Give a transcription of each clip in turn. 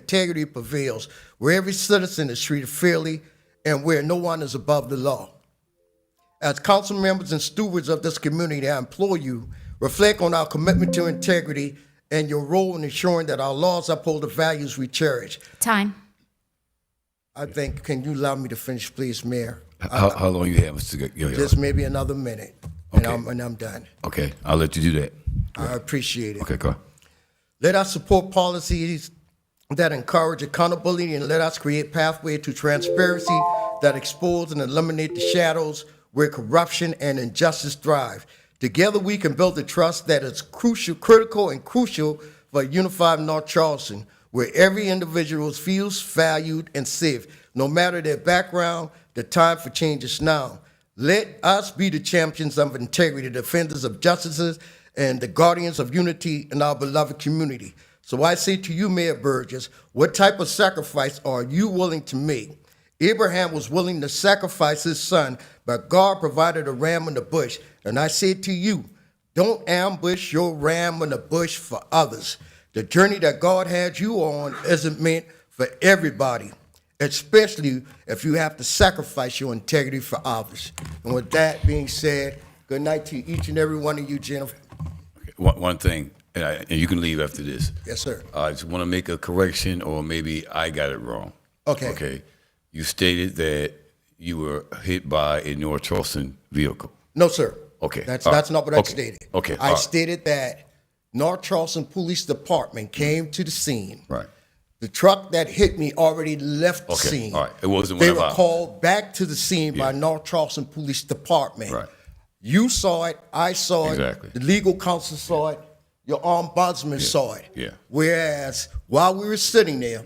integrity prevails, where every citizen is treated fairly, and where no one is above the law. As council members and stewards of this community, I implore you, reflect on our commitment to integrity and your role in ensuring that our laws uphold the values we cherish. Time. I think, can you allow me to finish, please, Mayor? How, how long you have, Mr. Gu- Gilliard? Just maybe another minute, and Okay. I'm, and I'm done. Okay, I'll let you do that. I appreciate it. Okay, go. ahead. Let us support policies that encourage accountability and let us create pathway to transparency that expose and eliminate the shadows where corruption and injustice thrive. Together we can build the trust that is crucial, critical and crucial for a unified North Charleston, where every individual feels valued and safe, no matter their background, the time for change is now. Let us be the champions of integrity, the defenders of justices, and the guardians of unity in our beloved community. So I say to you, Mayor Burgess, what type of sacrifice are you willing to make? Abraham was willing to sacrifice his son, but God provided a ram in the bush. And I say to you, don't ambush your ram in the bush for others. The journey that God had you on isn't meant for everybody especially if you have to sacrifice your integrity for others. And with that being said, good night to each and every one of you, Jennifer. One, one thing, and, I, and you can leave after this. Yes, sir. I just want to make a correction, or maybe I got it wrong. Okay. Okay. You stated that you were hit by a North Charleston vehicle. No, sir. Okay. That's All right. that's not what I Okay. stated. Okay. I All right. stated that North Charleston Police Department came to the scene. Right. The truck that hit me already left the Okay, scene. all right. It wasn't They one of were ours. called back to the scene by North Charleston Police Department. Right. You saw it. I saw Exactly. it. The legal counsel saw it. Your ombudsman saw it. yeah. Whereas while we were sitting there,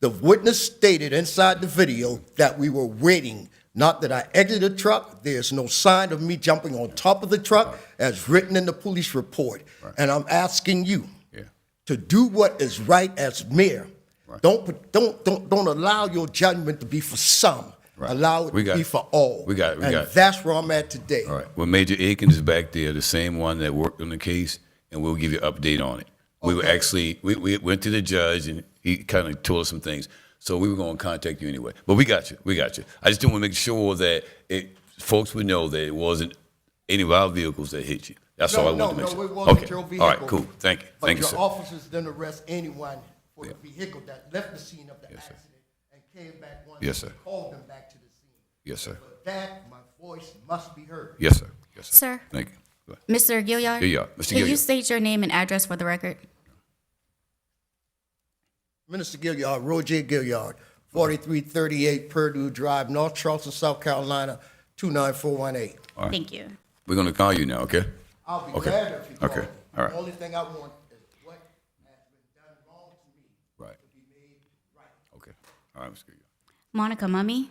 the witness stated inside the video that we were waiting. Not that I exited the truck. There's no sign of me jumping on top of the truck as written in the police report. And I'm asking you Yeah. to do what is right as mayor. Don't put- don't don't don't allow your judgment to be for some. Right. Allow it We to got be it. for all. We got it. We and got it. that's where I'm at today. All right. Well, Major Aikens is back there, the same one that worked on the case, and we'll give you an update on it. We were actually we, we went to the judge and he kind of told us some things, so we were going to contact you anyway. But we got you. We got you. I just didn't want to make sure that it, folks would know that it wasn't any of our vehicles that hit you. That's No, all I no, wanted to make no, sure. it wasn't okay. your All right. vehicle. Cool. Thank you. But Thank you, your sir. officers didn't arrest anyone for the vehicle that left the scene of the accident and came back once Yes, sir. we called them back to the scene. yes, sir. But that my voice must be heard. Yes, sir. Yes, sir. Sir, Thank you. Go ahead. Mr. Gilliard? Gilliard, Mr. Can you Gilliard. state your name and address for the record? Minister Gilliard, Roger Gilliard, 4338 Purdue Drive, North Charleston, South Carolina, 29418. Thank you. We're going to call you now. Okay. I'll be Okay. glad if you call Okay. me. All right. The only thing I want is what has been done wrong to me Right. to be made right. Okay. All right, Mr. Gilliard. Monica Mummy?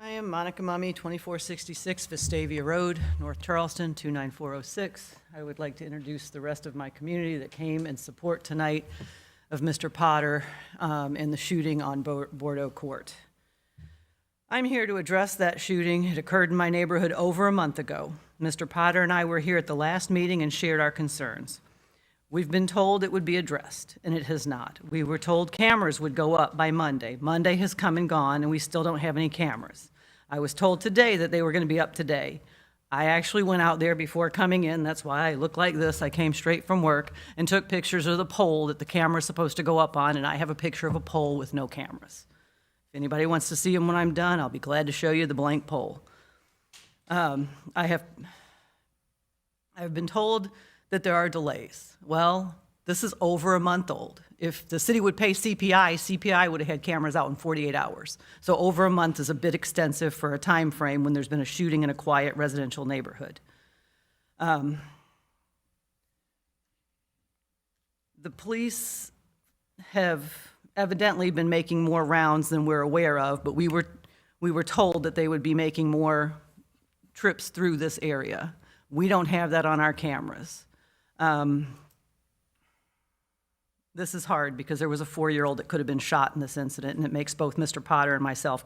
I am Monica Mummy, 2466 Vestavia Road, North Charleston, 29406. I would like to introduce the rest of my community that came in support tonight of Mr. Potter um, and the shooting on Bo- Bordeaux Court. I'm here to address that shooting. It occurred in my neighborhood over a month ago. Mr. Potter and I were here at the last meeting and shared our concerns. We've been told it would be addressed, and it has not. We were told cameras would go up by Monday. Monday has come and gone, and we still don't have any cameras. I was told today that they were going to be up today. I actually went out there before coming in, that's why I look like this. I came straight from work and took pictures of the pole that the camera's supposed to go up on, and I have a picture of a pole with no cameras. If anybody wants to see them when I'm done, I'll be glad to show you the blank pole. Um, I have I've been told that there are delays. Well, this is over a month old. If the city would pay CPI, CPI would have had cameras out in 48 hours. So over a month is a bit extensive for a time frame when there's been a shooting in a quiet residential neighborhood. Um, The police have evidently been making more rounds than we're aware of, but we were, we were told that they would be making more trips through this area. We don't have that on our cameras. Um, This is hard because there was a four-year-old that could have been shot in this incident, and it makes both Mr. Potter and myself